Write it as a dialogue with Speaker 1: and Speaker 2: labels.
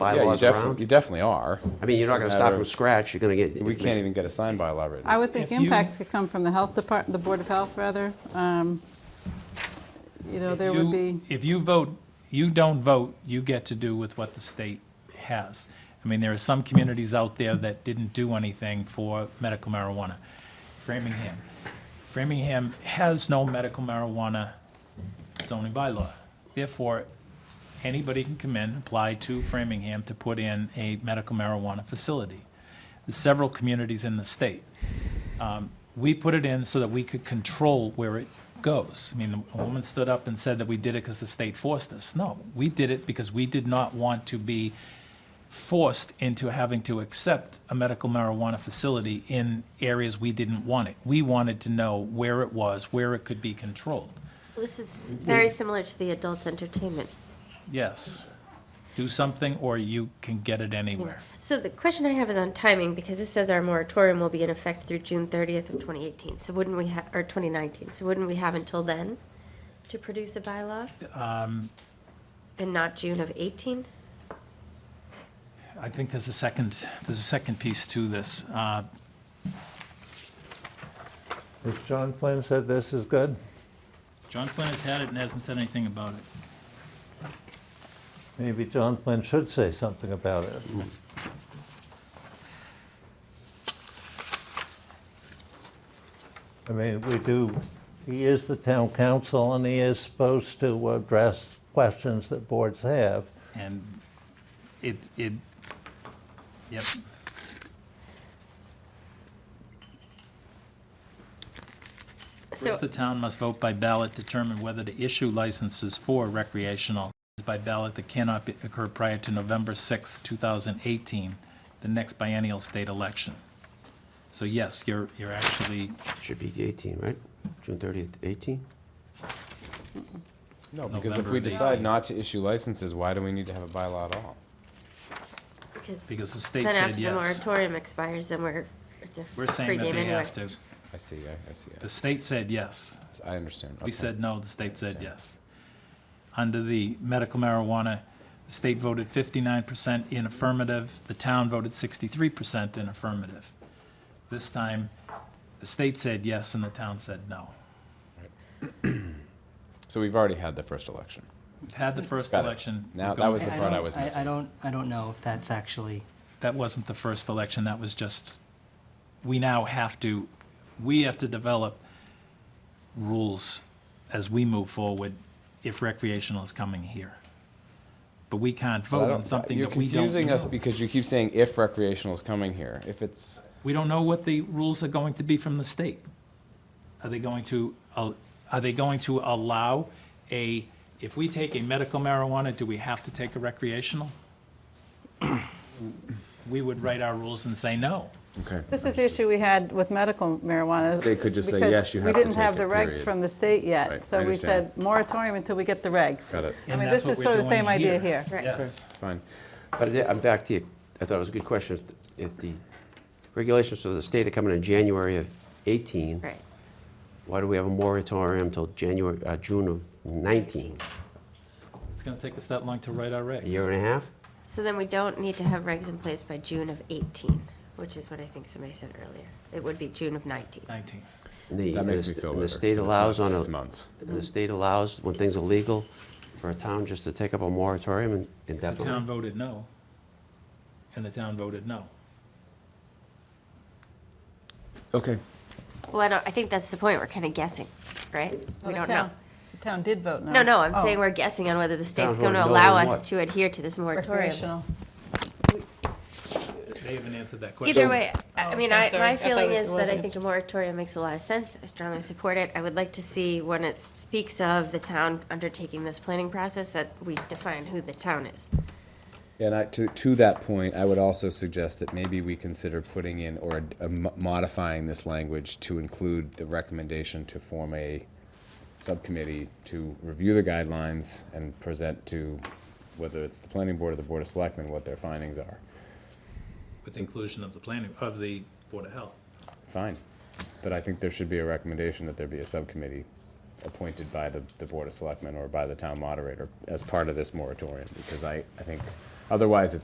Speaker 1: Yeah, you
Speaker 2: bylaws
Speaker 1: definitely, you
Speaker 2: around?
Speaker 1: definitely are.
Speaker 2: I mean, you're not going
Speaker 1: It's
Speaker 2: to
Speaker 1: just a
Speaker 2: start
Speaker 1: matter
Speaker 2: from
Speaker 1: of-
Speaker 2: scratch, you're going to get.
Speaker 1: We can't
Speaker 2: information.
Speaker 1: even get a signed bylaw written.
Speaker 3: I would think
Speaker 4: If you-
Speaker 3: impacts could come from the health department, the Board of Health, rather. Um, You know, there would be,
Speaker 4: You- If you vote, you don't vote, you get to do with what the state has. I mean, there are some communities out there that didn't do anything for medical marijuana. Framingham. Framingham has no medical marijuana zoning bylaw. Therefore, anybody can come in, apply to Framingham to put in a medical marijuana facility. There's several communities in the state. Um, We put it in so that we could control where it goes. I mean, a woman stood up and said that we did it because the state forced us. No, we did it because we did not want to be forced into having to accept a medical marijuana facility in areas we didn't want it. We wanted to know where it was, where it could be controlled.
Speaker 5: This is
Speaker 4: Mm-hmm.
Speaker 5: very similar to the adult entertainment.
Speaker 4: Yes. Do something or you can get it anywhere.
Speaker 5: So the question I have is on timing, because this says our moratorium will be in effect through June thirtieth of twenty eighteen, so wouldn't we have, or twenty nineteen, so wouldn't we have until then to produce a bylaw?
Speaker 4: Um,
Speaker 5: And not June of eighteen?
Speaker 4: I think there's a second, there's a second piece to this. Uh,
Speaker 6: Has John Flynn said this is good?
Speaker 4: John Flynn has had it and hasn't said anything about it.
Speaker 6: Maybe John Flynn should say something about it. I mean, we do, he is the town council and he is supposed to address questions that boards have.
Speaker 4: And it, it, yep.
Speaker 5: So,
Speaker 4: First, the town must vote by ballot determine whether to issue licenses for recreational by ballot that cannot be- occur prior to November sixth, two 2018, the next biennial state election. So yes, you're, you're actually,
Speaker 2: Should be the 18, right? June 30th, 18?
Speaker 1: No, because if
Speaker 4: November
Speaker 1: we
Speaker 4: of
Speaker 1: decide
Speaker 4: 18.
Speaker 1: not to issue licenses, why do we need to have a bylaw at all?
Speaker 4: because
Speaker 5: because
Speaker 4: the state
Speaker 5: then
Speaker 4: said
Speaker 5: after the
Speaker 4: yes.
Speaker 5: moratorium expires, then we're, it's a
Speaker 4: We're
Speaker 5: free
Speaker 4: saying that
Speaker 5: game
Speaker 4: they
Speaker 5: anyway.
Speaker 4: have to.
Speaker 1: I see, I, I see,
Speaker 4: The state said yes.
Speaker 1: I, I understand.
Speaker 4: We
Speaker 1: okay.
Speaker 4: said no, the state said yes. Under the medical marijuana, the state voted fifty-nine percent in affirmative, the town voted sixty-three percent in affirmative. This time, the state said yes and the town said no.
Speaker 1: So we've already had the first election.
Speaker 4: We've Had the first
Speaker 1: Got it.
Speaker 4: election.
Speaker 1: Now,
Speaker 4: we're
Speaker 1: that
Speaker 4: going
Speaker 1: was the
Speaker 4: back.
Speaker 1: part I
Speaker 7: don't-
Speaker 1: was
Speaker 7: I
Speaker 1: missing.
Speaker 7: don't, I don't know if that's actually,
Speaker 4: That wasn't the first election, that was just, we now have to, we have to develop rules as we move forward if recreational is coming here. But we can't
Speaker 1: But I
Speaker 4: vote on
Speaker 1: don't-
Speaker 4: something
Speaker 1: You're
Speaker 4: that we don't
Speaker 1: confusing us
Speaker 4: know.
Speaker 1: because you keep saying if recreational is coming here, if it's,
Speaker 4: We don't know what the rules are going to be from the state. Are they going to, al- are they going to allow a, if we take a medical marijuana, do we have to take a recreational? We would write our rules and say no.
Speaker 1: okay.
Speaker 3: this is the issue we had with medical marijuana.
Speaker 1: They could just say,
Speaker 3: because
Speaker 1: yes, you have to
Speaker 3: We didn't have
Speaker 1: take
Speaker 3: the
Speaker 1: it,
Speaker 3: regs
Speaker 1: period.
Speaker 3: from the state
Speaker 1: Right,
Speaker 3: yet, so
Speaker 1: I
Speaker 3: we
Speaker 1: understand.
Speaker 3: said moratorium until we get the regs.
Speaker 1: Got it.
Speaker 3: I
Speaker 4: And
Speaker 3: mean,
Speaker 4: that's
Speaker 3: this is
Speaker 4: what we're
Speaker 3: sort of the
Speaker 4: doing
Speaker 3: same idea here.
Speaker 5: Right.
Speaker 4: Yes.
Speaker 1: Fine.
Speaker 2: But I- I'm back to you. I thought it was a good question. If- If the regulations of the state are coming in January of 18,
Speaker 5: Right,
Speaker 2: why do we have a moratorium till January, uh, June of 19?
Speaker 4: It's going to take us that long to write our
Speaker 2: A year
Speaker 4: regs.
Speaker 2: and a half?
Speaker 5: so then we don't need to have regs in place by June of eighteen, which is what I think somebody said earlier. It would be June of nineteen.
Speaker 4: 19.
Speaker 2: And the-
Speaker 1: That
Speaker 2: and the
Speaker 1: makes me
Speaker 2: st-
Speaker 1: feel
Speaker 2: and
Speaker 1: better.
Speaker 2: The state
Speaker 1: It's not
Speaker 2: allows on
Speaker 1: six
Speaker 2: a,
Speaker 1: months.
Speaker 2: and the state allows, when things are legal, for a town just to take up a moratorium and
Speaker 4: If the town
Speaker 2: indefinitely.
Speaker 4: voted no, and the town voted no.
Speaker 1: Okay.
Speaker 5: Well, I don't, I think that's the point, we're kind of guessing, right? We
Speaker 3: Well, the
Speaker 5: don't know.
Speaker 3: town- The town did vote no.
Speaker 5: No, no, I'm
Speaker 3: Oh,
Speaker 5: saying we're guessing on whether the state's
Speaker 2: Town
Speaker 5: going to
Speaker 2: voted no
Speaker 5: allow
Speaker 2: on
Speaker 5: us
Speaker 2: what?
Speaker 5: to adhere to this moratorium.
Speaker 3: Recreational.
Speaker 4: They haven't answered that question.
Speaker 5: Either way, I I
Speaker 3: Oh,
Speaker 5: mean,
Speaker 3: I'm
Speaker 5: I,
Speaker 3: sorry.
Speaker 5: my
Speaker 3: I thought
Speaker 5: feeling
Speaker 3: it
Speaker 5: is that I
Speaker 3: wasn't.
Speaker 5: think a moratorium makes a lot of sense. I strongly support it. I would like to see when it speaks of the town undertaking this planning process, that we define who the town is.
Speaker 1: And I, to, to that point, I would also suggest that maybe we consider putting in or ad- uh, mo- modifying this language to include the recommendation to form a subcommittee to review the guidelines and present to, whether it's the planning board or the board of selectmen, what their findings are.
Speaker 4: With the inclusion of the planning, of the Board of Health.
Speaker 1: Fine. But I think there should be a recommendation that there be a subcommittee appointed by the, the board of selectmen or by the town moderator as part of this moratorium, because I, I think, otherwise it's